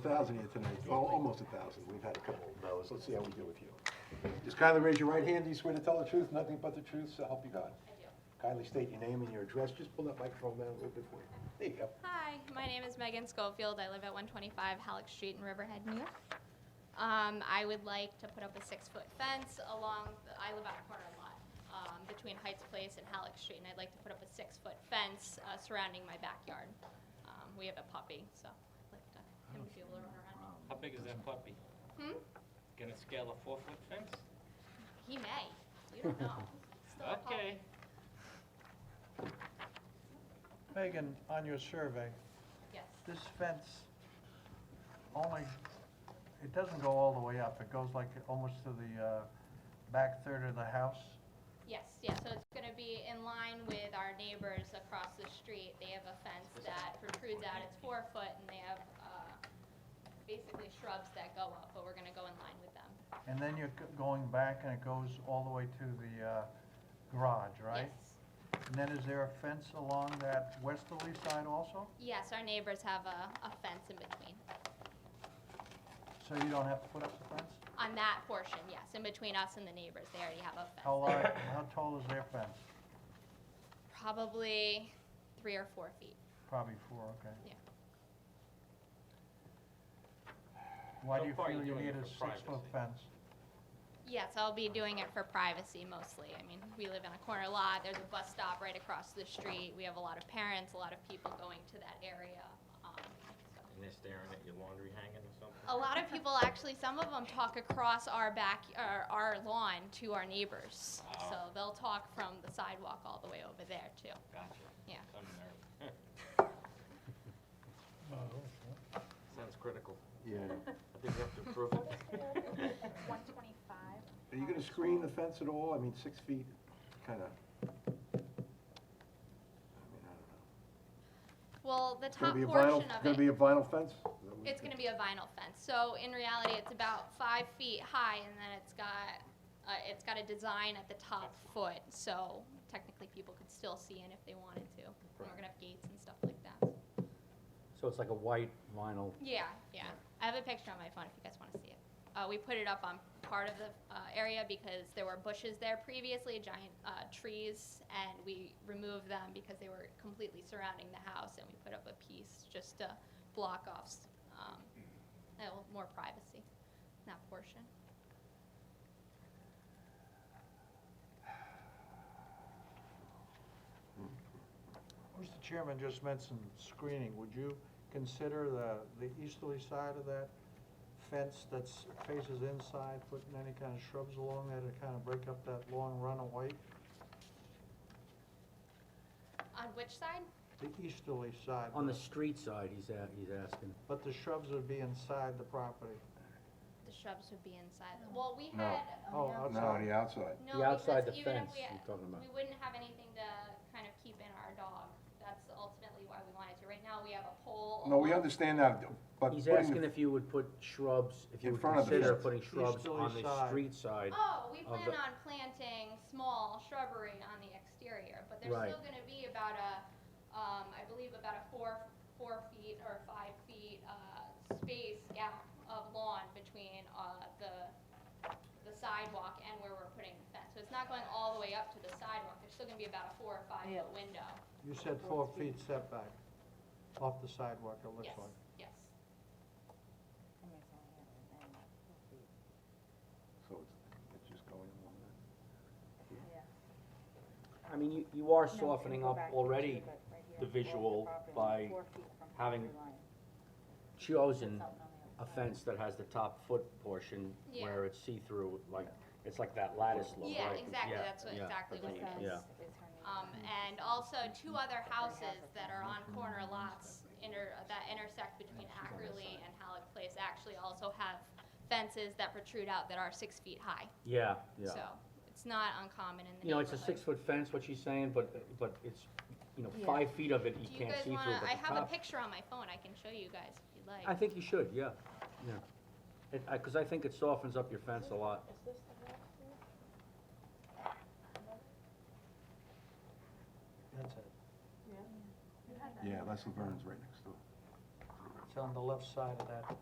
thousand here tonight, well, almost a thousand, we've had a couple of those, let's see how we do with you. Just kindly raise your right hand, do you swear to tell the truth, nothing but the truth, so help you God? Kindly state your name and your address, just pull that microphone down a little bit for you. There you go. Hi, my name is Megan Schofield. I live at 125 Halleck Street in Riverhead, New York. Um, I would like to put up a six-foot fence along, the- I live on a corner lot um, between Heights Place and Halleck Street, and I'd like to put up a six-foot fence uh, surrounding my backyard. Um, We have a puppy, so I'd like to- him to be able to run around. How big is that puppy? Hmm? Gonna scale a four-foot fence? He may, you don't know. Still a puppy. Okay. Megan, on your survey, Yes, this fence only, it doesn't go all the way up. It goes like almost to the uh, back third of the house. yes, yeah, so it's gonna be in line with our neighbors across the street. They have a fence that protrudes out, it's four foot, and they have, uh, basically shrubs that go up, but we're gonna go in line with them. And then you're go- going back and it goes all the way to the uh, garage, right? Yes. And then is there a fence along that westerly side also? Yes, our neighbors have a, a fence in between. So you don't have to put up the fence? On that portion, yes, in between us and the neighbors, they already have a How fence. large, how tall is their fence? Probably three or four feet. Probably four, okay. Yeah. Why So do you far feel you're you doing need it a for six-foot privacy. fence? Yes, I'll be doing it for privacy mostly. I mean, we live in a corner lot, there's a bus stop right across the street, we have a lot of parents, a lot of people going to that area. um, so. And they're staring at your laundry hanging or something? A lot of people, actually, some of them talk across our back, or our lawn to our neighbors. So they'll talk from the sidewalk all the way over there too. Gotcha. Yeah. Some nerve. Sounds critical. Yeah. I think we have to approve it. 125. Are you gonna screen the fence at all? I mean, six feet, kinda. I mean, I Well, the don't top know. uh, Gonna be a portion vinyl- of Gonna be it, a vinyl fence? Is that what you it's think? gonna be a vinyl fence. So in reality, it's about five feet high and then it's got, uh, it's got a design at the top foot. So technically, people could still see in if they wanted to. And we're gonna have gates and stuff like that. So it's like a white vinyl, Yeah, yeah. I have a picture on my phone if you guys want to see it. Uh, we put it up on part of the uh, area because there were bushes there previously, giant uh, trees, and we removed them because they were completely surrounding the house, and we put up a piece just to block off s- um, a little more privacy in that portion. Mr. Chairman just mentioned screening. Would you consider the, the easterly side of that fence that faces inside, putting any kind of shrubs along there to kind of break up that long runaway? On which side? The easterly side. on the street side, he's, a- he's asking. But the shrubs would be inside the property. The shrubs would be inside. Well, we No. had. um, Oh, No, outside. the outside. No, The outside because the even if fence we- you're talking about. We wouldn't have anything to kind of keep in our dog. That's ultimately why we wanted to. Right now, we have a pole. No, we along- understand that, but He's putting the- asking if you would put shrubs, In if you would front of the consider fence. putting shrubs Easterly on the side. street side. Oh, we of plan the- on planting small shrubbery on the exterior, but there's Right. still gonna be about a, um, I believe about a four, four feet or five feet, uh, space gap of lawn between, uh, the, the sidewalk and where we're putting the fence. So it's not going all the way up to the sidewalk. There's still gonna be about a four or five foot window. You said four feet setback off the sidewalk, it looks Yes, like. yes. So it's, it's just going along that. I mean, you, you are softening up already the visual by having chosen a fence that has the top foot portion Yeah. where it's see-through, like, it's like that lattice look, Yeah, right? exactly, that's what, yeah, exactly what it is. Yeah. Um, and also two other houses that are on corner lots inter, that intersect between Ackerly and Halleck Place actually also have fences that protrude out that are six feet high. Yeah, yeah. So it's not uncommon in the neighborhood. You know, it's a six-foot fence, what she's saying, but, but it's, you know, Yeah. five feet of it you Do you can't guys see through, wanna, but I the have a top- picture on my phone, I can show you guys if you'd I like. think you should, yeah, yeah. It, I, cause I think it softens up your fence a lot. That's it. Yeah, Les Verne's right next door. It's on the left side of that